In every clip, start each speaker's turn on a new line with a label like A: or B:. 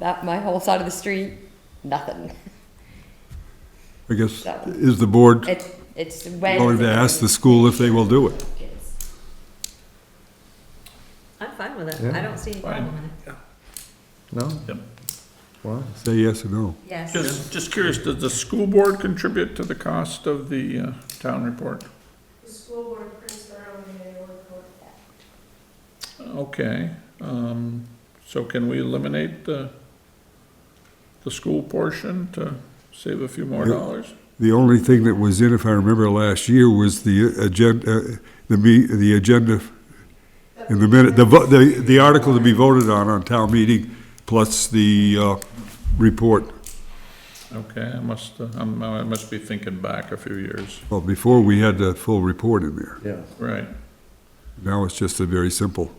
A: that, my whole side of the street, nothing.
B: I guess,
A: That one.
B: is the board
A: It's, it's when.
B: going to ask the school if they will do it?
C: I'm fine with it.
D: Yeah.
C: I don't see any problem with it.
D: No?
E: Yep.
D: Why?
B: Say yes or no.
C: Yes.
E: Just, just curious, does the school board contribute to the cost of the uh, town report?
F: The school board prints their own annual report.
E: Okay, um, so can we eliminate the, the school portion to save a few more
B: Yeah.
E: dollars?
B: The only thing that was in, if I remember last year, was the agenda, uh, the me, the agenda in the minute, the, vo- the, the article to be voted on on town meeting, plus the, uh, report.
E: Okay, I must, uh, I'm, I must be thinking back a few years,
B: Well, before we had the full report in there.
D: Yeah.
E: right,
B: Now it's just a very simple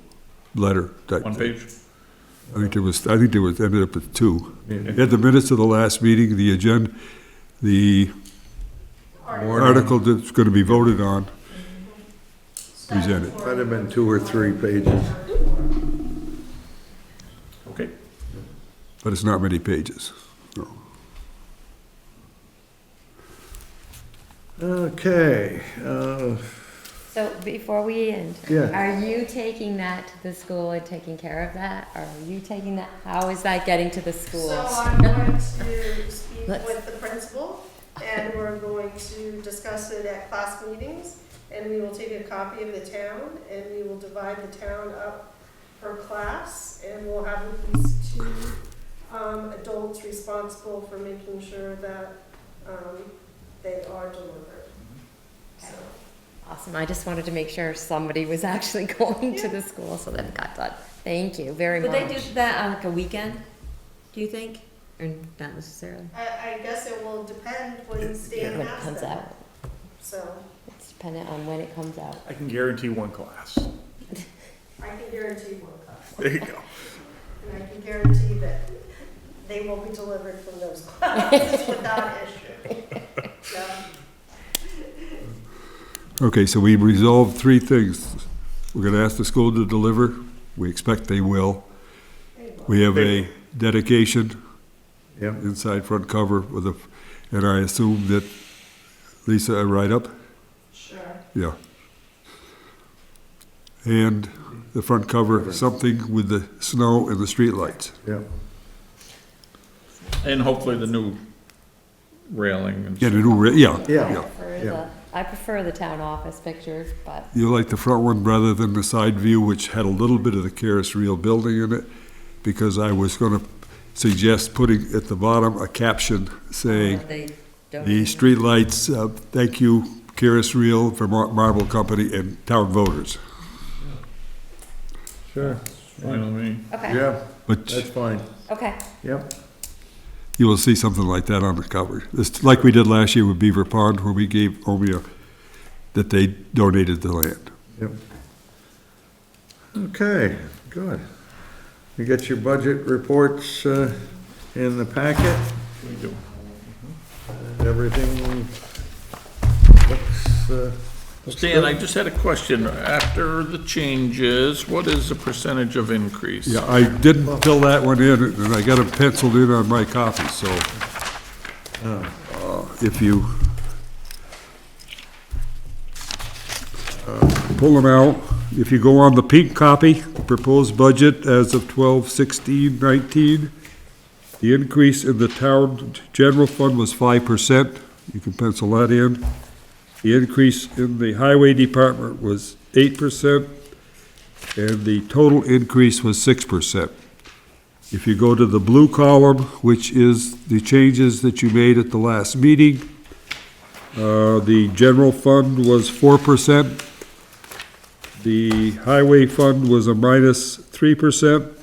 B: letter type
E: one
B: thing.
E: page?
B: I think there was, I think there was, ended up with two. At the minutes of the last meeting, the agenda, the article that's gonna be voted on, presented.
D: Might have been two or three pages.
E: Okay,
B: but it's not many pages. No.
D: Okay, uh,
A: So before we end,
D: Yeah.
A: are you taking that to the school and taking care of that? Or are you taking that, how is that getting to the schools?
F: So I'm going to speak
A: Let's-
F: with the principal, and we're going to discuss it at class meetings, and we will take a copy of the town, and we will divide the town up per class, and we'll have at least two um, adults responsible for making sure that um, they are delivered. So,
A: Awesome, I just wanted to make sure somebody was actually going to the school, so that it got done. Thank you very
C: Would
A: much.
C: they do that on like a weekend, do you think? Or not necessarily?
F: I, I guess it will depend when Stan
A: When it
F: has
A: comes
F: them,
A: out,
F: so
A: it's dependent on when it comes out.
G: I can guarantee one class.
F: I can guarantee one class.
G: There you go.
F: And I can guarantee that they will be delivered from those classes without issue. So,
B: Okay, so we resolved three things. We're gonna ask the school to deliver, we expect they will. We have a dedication,
D: yep,
B: inside front cover with a, and I assume that, Lisa, a write-up?
F: Sure.
B: Yeah. And the front cover, something with the snow and the streetlights.
D: yep.
E: and hopefully the new railing and
B: Get a
E: stuff.
B: new, re- yeah.
D: Yeah.
A: I prefer
D: yeah.
A: the, I prefer the town office picture, but
B: You like the front one rather than the side view, which had a little bit of the Caris Real building in it, because I was gonna suggest putting at the bottom a caption saying,
C: They don't.
B: "The streetlights, uh, thank you, Caris Real, Vermont Marble Company, and town voters."
D: Sure,
E: You know what I mean?
A: okay,
D: yeah, that's
B: But
D: fine,
A: okay.
D: yep.
B: you will see something like that on the cover. It's like we did last year with Beaver Pond, where we gave Omea, that they donated the land.
D: Yep. Okay, good. You got your budget reports uh, in the packet?
E: We do.
D: Everything looks, uh,
E: Stan, I just had a question. After the changes, what is the percentage of increase?
B: Yeah, I didn't fill that one in, and I got it penciled in on my copy, so. uh, If you. uh, Pull them out, if you go on the pink copy, proposed budget as of twelve sixteen nineteen, the increase in the town general fund was five percent, you can pencil that in. The increase in the highway department was eight percent, and the total increase was six percent. If you go to the blue column, which is the changes that you made at the last meeting, uh, the general fund was four percent. The highway fund was a minus three percent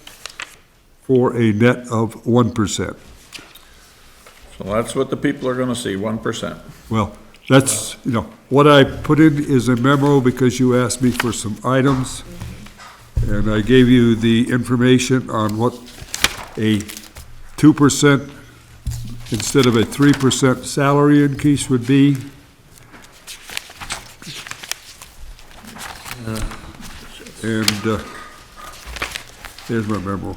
B: for a net of one percent.
E: So that's what the people are gonna see, one percent.
B: Well, that's, you know, what I put in is a memo because you asked me for some items. And I gave you the information on what a two percent instead of a three percent salary increase would be. And, uh, there's my memo.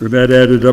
B: And that added up.